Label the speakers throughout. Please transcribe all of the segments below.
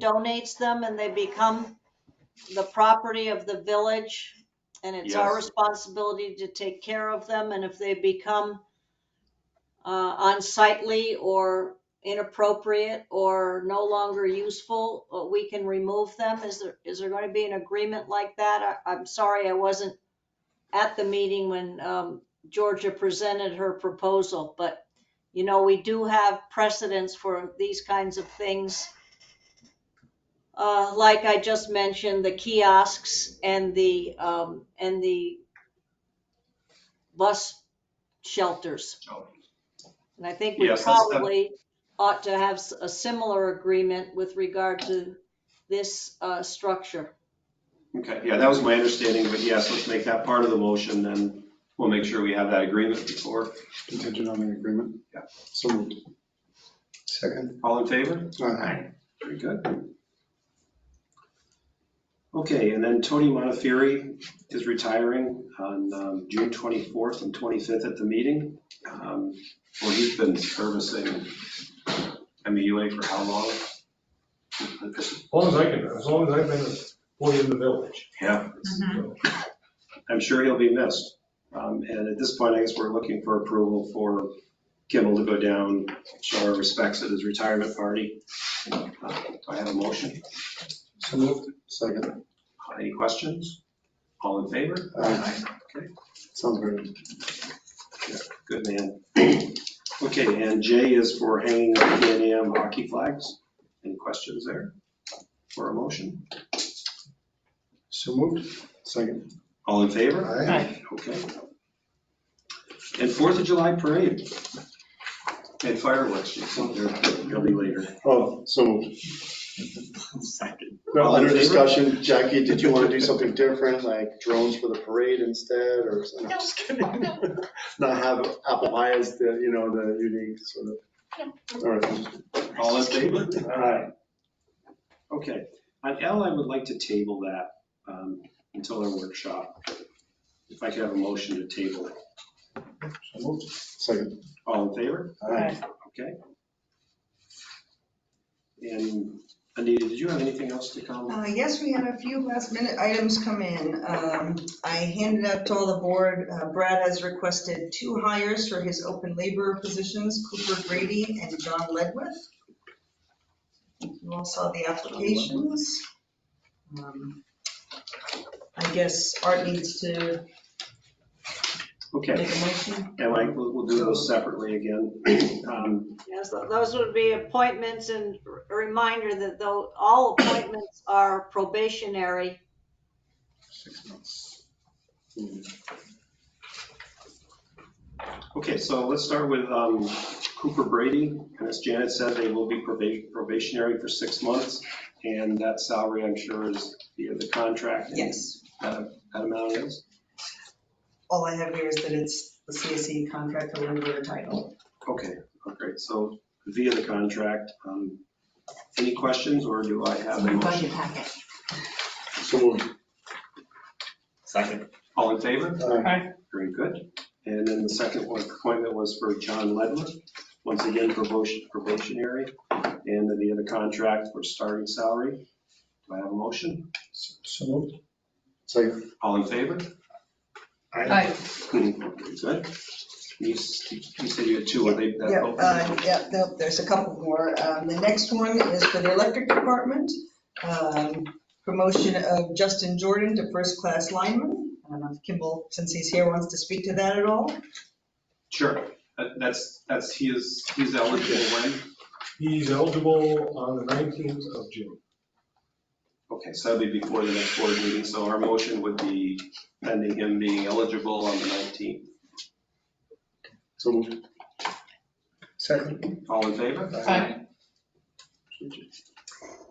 Speaker 1: donates them and they become the property of the village. And it's our
Speaker 2: Yes.
Speaker 1: responsibility to take care of them. And if they become uh, unsightly or inappropriate or no longer useful, uh, we can remove them. Is there, is there going to be an agreement like that? I, I'm sorry, I wasn't at the meeting when um, Georgia presented her proposal, but you know, we do have precedents for these kinds of things. Uh, like I just mentioned, the kiosks and the, um, and the bus shelters.
Speaker 2: Oh,
Speaker 1: And I think we
Speaker 2: Yes, that's-
Speaker 1: probably ought to have s- a similar agreement with regard to this, uh, structure.
Speaker 2: Okay, yeah, that was my understanding, but yes, let's make that part of the motion, then we'll make sure we have that agreement before.
Speaker 3: Contingent on an agreement?
Speaker 2: Yeah.
Speaker 3: So moved.
Speaker 4: Second.
Speaker 2: All in favor?
Speaker 4: Aye.
Speaker 2: Very good. Okay, and then Tony Montefiore is retiring on um, June 24th and 25th at the meeting. Um, Well, he's been servicing MEUA for how long?
Speaker 5: As long as I can, as long as I've been an employee in the village.
Speaker 2: Yeah,
Speaker 5: So,
Speaker 2: I'm sure he'll be missed. Um, And at this point, I guess we're looking for approval for Kimball to go down, show our respects at his retirement party. Uh, Do I have a motion?
Speaker 3: So moved. Second.
Speaker 2: Any questions? All in favor?
Speaker 3: Aye. Sounds very,
Speaker 2: Good man. Okay, and J is for hanging up Pan Am hockey flags. Any questions there? For a motion?
Speaker 4: So moved.
Speaker 3: second.
Speaker 2: All in favor?
Speaker 4: Aye.
Speaker 2: Okay. And Fourth of July parade. And fireworks, they'll be later.
Speaker 3: Oh, so moved.
Speaker 2: Second.
Speaker 3: Well,
Speaker 2: All in
Speaker 3: under
Speaker 2: favor?
Speaker 3: discussion, Jackie, did you want to do something different, like drones for the parade instead, or, no, I'm just kidding. Not have apple pie as the, you know, the unique sort of. All right.
Speaker 2: All in favor?
Speaker 3: Aye.
Speaker 2: Okay. On L, I would like to table that um, until our workshop. If I could have a motion to table it.
Speaker 3: So moved. Second.
Speaker 2: All in favor?
Speaker 3: Aye.
Speaker 2: Okay. And Anita, did you have anything else to comment?
Speaker 6: Uh, Yes, we had a few last minute items come in. Um, I handed out to all the board, uh, Brad has requested two hires for his open labor positions, Cooper Grady and John Ledwith. You all saw the applications. Um, I guess Art needs to
Speaker 2: Okay,
Speaker 6: make a motion.
Speaker 2: and like, we'll, we'll do those separately again. Um,
Speaker 1: Yes, tho- those would be appointments and r- a reminder that though all appointments are probationary,
Speaker 4: Six months.
Speaker 2: Okay, so let's start with um, Cooper Brady. And as Janet said, they will be proba- probationary for six months. And that salary, I'm sure, is via the contract. and
Speaker 6: Yes,
Speaker 2: That that amount is?
Speaker 6: all I have here is that it's the CSE contract for labor title.
Speaker 2: Okay, all right, so via the contract. um, Any questions or do I have a motion?
Speaker 6: packet.
Speaker 3: So moved.
Speaker 4: Second.
Speaker 2: All in favor?
Speaker 3: Aye.
Speaker 2: Very good. And then the second one, appointment was for John Ledler, once again probation- probationary, and then the other contract for starting salary. Do I have a motion?
Speaker 4: So moved.
Speaker 3: Second.
Speaker 2: All in favor?
Speaker 4: Aye.
Speaker 2: Very Good. You s- you said you had two, are they? that
Speaker 6: Yeah,
Speaker 2: open?
Speaker 6: uh, yeah, no, there's a couple more. Um, The next one is for the electric department. Um, Promotion of Justin Jordan to first-class lineman. I don't know if Kimball, since he's here, wants to speak to that at all.
Speaker 2: Sure, That- that's, that's, he is, he's eligible when?
Speaker 5: He's eligible on the 19th of June.
Speaker 2: Okay, so that'd be before the next board meeting, so our motion would be pending him being eligible on the 19th.
Speaker 3: So moved.
Speaker 4: Second.
Speaker 2: All in favor?
Speaker 4: Aye.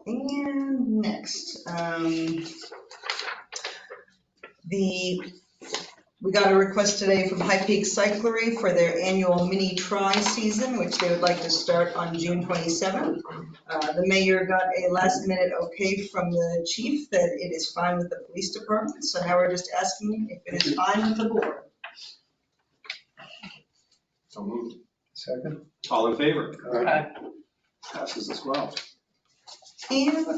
Speaker 6: And next, um, the, we got a request today from High Peak Cyclery for their annual mini tri season, which they would like to start on June 27th. Uh, The mayor got a last minute okay from the chief that it is fine with the police department, so now we're just asking if it is fine with the board.
Speaker 2: So moved.
Speaker 4: Second.
Speaker 2: All in favor?
Speaker 3: Aye.
Speaker 2: Passes as well.
Speaker 6: And with